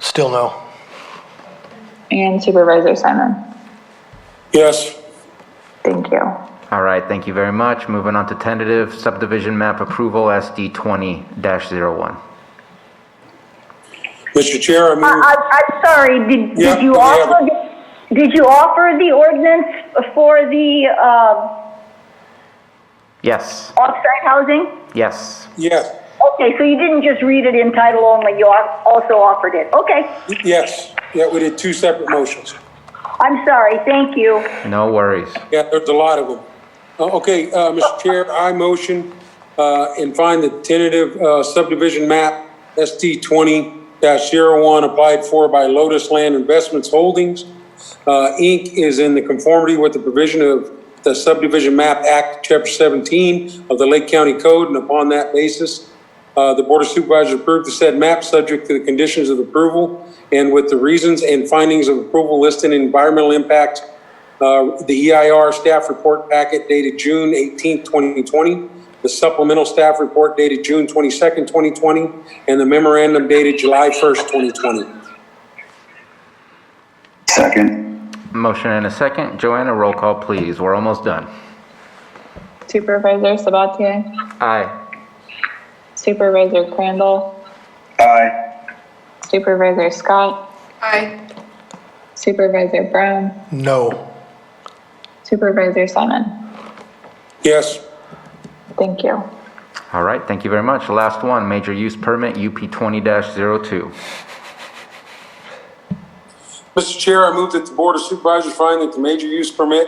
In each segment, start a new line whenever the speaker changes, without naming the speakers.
Still no.
And Supervisor Simon.
Yes.
Thank you.
All right, thank you very much. Moving on to tentative subdivision map approval, SD 20-01.
Mr. Chair, I
I,
move,
I, I'm sorry, did,
Yeah,
did you
we have
offer, did you offer the ordinance for the, uh,
Yes,
off-site housing?
yes,
yes,
Okay, so you didn't just read it in title only, you al- also offered it, okay.
yes. Yeah, we did two separate motions.
I'm sorry, thank you.
no worries.
Yeah, there's a lot of them. Uh, Okay, uh, Mr. Chair, I motion uh, and find the tentative uh, subdivision map ST 20-01 applied for by Lotus Land Investments Holdings, uh, Inc. is in the conformity with the provision of the Subdivision Map Act, Chapter 17 of the Lake County Code, and upon that basis, uh, the Board of Supervisors approved the said map subject to the conditions of approval and with the reasons and findings of approval listed in environmental impact uh, the EIR staff report packet dated June 18, 2020, the supplemental staff report dated June 22, 2020, and the memorandum dated July 1, 2020.
Second.
Motion and a second. Joanna, roll call, please. We're almost done.
Supervisor Sabatier?
Aye.
Supervisor Crandall?
Aye.
Supervisor Scott? Aye. Supervisor Brown?
No.
Supervisor Simon?
Yes,
Thank you.
All right, thank you very much. Last one, major use permit, UP 20-02.
Mr. Chair, I move that the Board of Supervisors find that the major use permit,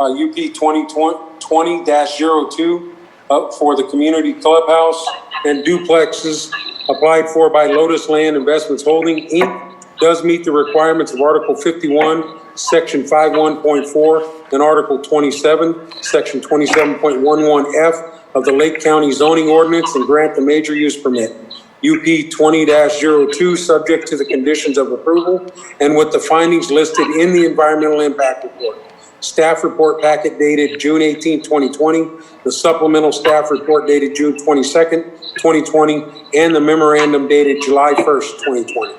uh, UP 2020-02, uh, for the community clubhouse and duplexes applied for by Lotus Land Investments Holding, Inc., does meet the requirements of Article 51, Section 51.4, and Article 27, Section 27.11F of the Lake County zoning ordinance and grant the major use permit. UP 20-02, subject to the conditions of approval and with the findings listed in the environmental impact report. Staff report packet dated June 18, 2020, the supplemental staff report dated June 22, 2020, and the memorandum dated July 1, 2020.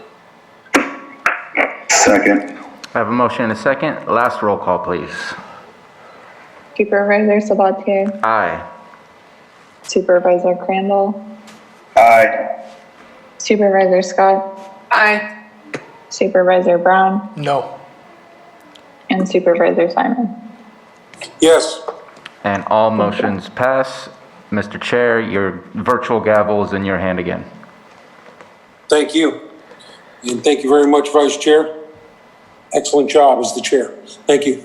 Second.
I have a motion and a second. Last roll call, please.
Supervisor Sabatier?
Aye.
Supervisor Crandall?
Aye.
Supervisor Scott?
Aye.
Supervisor Brown?
No.
And Supervisor Simon?
Yes,
And all motions pass. Mr. Chair, your virtual gavel is in your hand again.
thank you. And thank you very much, Vice Chair. Excellent job as the chair. Thank you.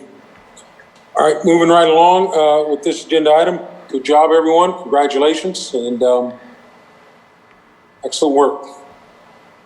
All right, moving right along uh, with this agenda item. Good job, everyone. Congratulations and um, excellent work.